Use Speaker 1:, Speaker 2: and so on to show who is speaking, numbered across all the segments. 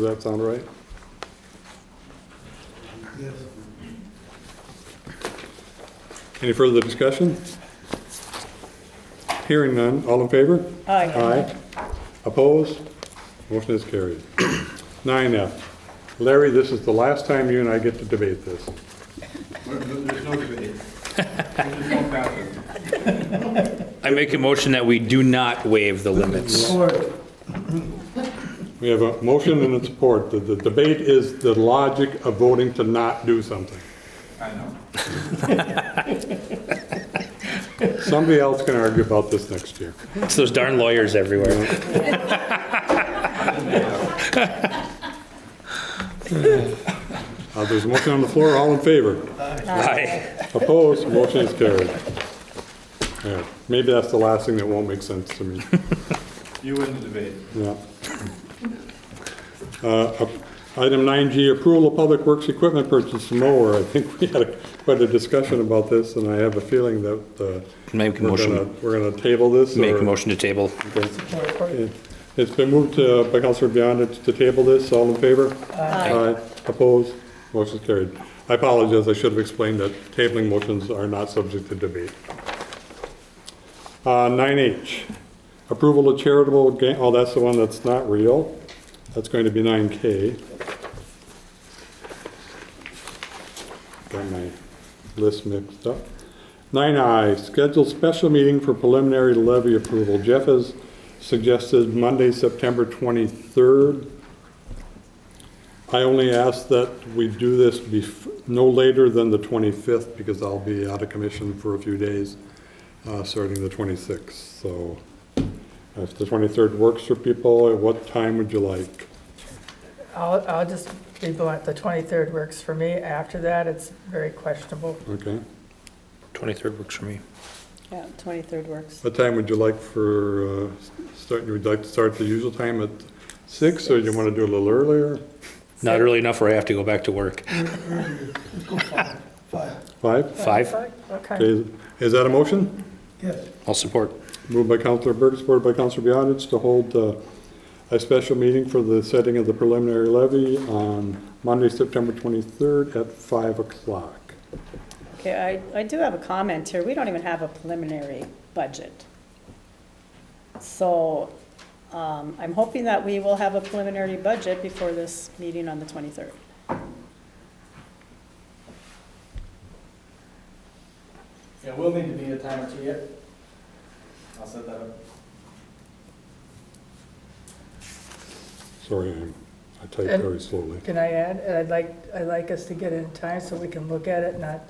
Speaker 1: Does that sound right? Any further discussion? Hearing none, all in favor?
Speaker 2: Aye.
Speaker 1: Aye. Opposed? Motion is carried. Nine F. Larry, this is the last time you and I get to debate this.
Speaker 3: There's no debate. There's no passing.
Speaker 4: I make a motion that we do not waive the limits.
Speaker 1: We have a motion and a support. The, the debate is the logic of voting to not do something.
Speaker 3: I know.
Speaker 1: Somebody else can argue about this next year.
Speaker 4: It's those darn lawyers everywhere.
Speaker 1: Uh, there's a motion on the floor, all in favor?
Speaker 4: Aye.
Speaker 1: Opposed, motion is carried. Yeah, maybe that's the last thing that won't make sense to me,
Speaker 3: You win the debate.
Speaker 1: yeah. Uh, up- Item 9G, approval of public works equipment purchase mower. I think we had a- quite a discussion about this, and I have a feeling that uh,
Speaker 4: Make a
Speaker 1: we're
Speaker 4: motion.
Speaker 1: gonna, we're gonna table this.
Speaker 4: Make
Speaker 1: or-
Speaker 4: a motion to table.
Speaker 1: It- It's been moved uh, by Counselor Biondi to table this, all in favor? Aye. Opposed? Motion carried. I apologize, I should have explained that tabling motions are not subject to debate. Uh, 9H, approval of charitable, ga- oh, that's the one that's not real. That's going to be 9K. Got my list mixed up. Nine I, scheduled special meeting for preliminary levy approval. Jeff has suggested Monday, September 23rd. I only ask that we do this bef, no later than the 25th, because I'll be out of commission for a few days, uh, starting the 26th. So if the 23rd works for people, at what time would you like?
Speaker 2: I'll, I'll just be blunt, the 23rd works for me. After that, it's very questionable.
Speaker 1: Okay?
Speaker 4: 23rd works for me.
Speaker 5: Yeah, 23rd works.
Speaker 1: What time would you like for, uh, start, you would like to start the usual time at six, or you want to do a little earlier?
Speaker 4: Not early enough where I have to go back to work.
Speaker 1: Five?
Speaker 4: Five,
Speaker 2: Okay.
Speaker 1: Okay, Is that a motion?
Speaker 4: I'll support.
Speaker 1: Moved by Counselor Berg, supported by Counselor Biotis to hold uh, a special meeting for the setting of the preliminary levy on Monday, September 23rd at 5 o'clock.
Speaker 5: Okay, I, I do have a comment here. We don't even have a preliminary budget. So um, I'm hoping that we will have a preliminary budget before this meeting on the 23rd.
Speaker 6: Yeah, we'll need to be a time or two yet. I'll set that up.
Speaker 1: Sorry, I'm- I type
Speaker 2: And-
Speaker 1: very slowly.
Speaker 2: Can I add, and I'd like, I'd like us to get it in time so we can look at it, not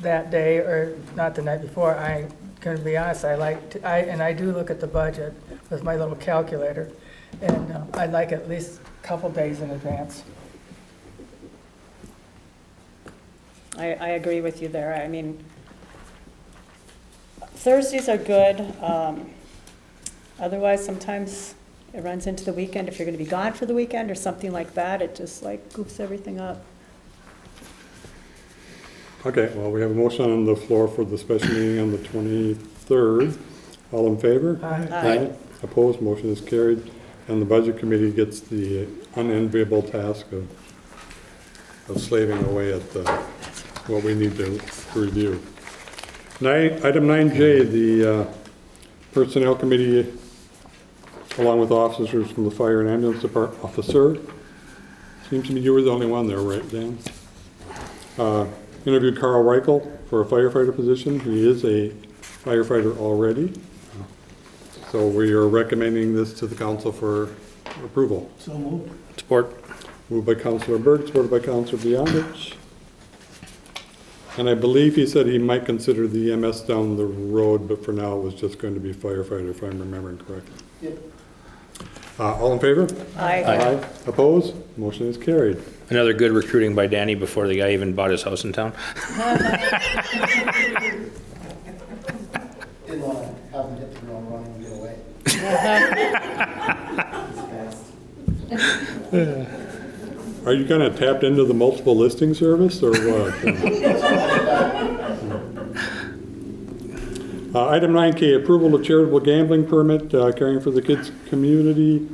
Speaker 2: that day or not the night before. I, gonna be honest, I like, to- I, and I do look at the budget with my little calculator. And uh, I'd like at least a couple days in advance.
Speaker 5: I, I agree with you there. I mean, Thursdays are good. um, Otherwise, sometimes it runs into the weekend. If you're going to be gone for the weekend or something like that, it just like goofs everything up.
Speaker 1: Okay, well, we have a motion on the floor for the special meeting on the 23rd. All in favor?
Speaker 5: Aye.
Speaker 1: Opposed, motion is carried, and the Budget Committee gets the unenviable task of, of slaving away at the, what we need to review. Nine, item nine J, the uh, Personnel Committee, along with officers from the Fire and Ambulance Department, officer, seems to me you were the only one there, right, Dan? Uh, Interviewed Carl Reichel for a firefighter position, he is a firefighter already. So we are recommending this to the council for approval.
Speaker 4: Support.
Speaker 1: Moved by Councilor Berg, supported by Councilor Beyondich. And I believe he said he might consider the EMS down the road, but for now it was just going to be firefighter, if I'm remembering correctly. Uh, all in favor?
Speaker 5: I
Speaker 1: Opposed? Motion is carried.
Speaker 4: Another good recruiting by Danny before the guy even bought his house in town.
Speaker 7: Didn't want to have them hit the ground running and get away.
Speaker 1: Are you kind of tapped into the multiple listing service or what? Uh, Item 9K, approval of charitable gambling permit, uh, caring for the kids' community.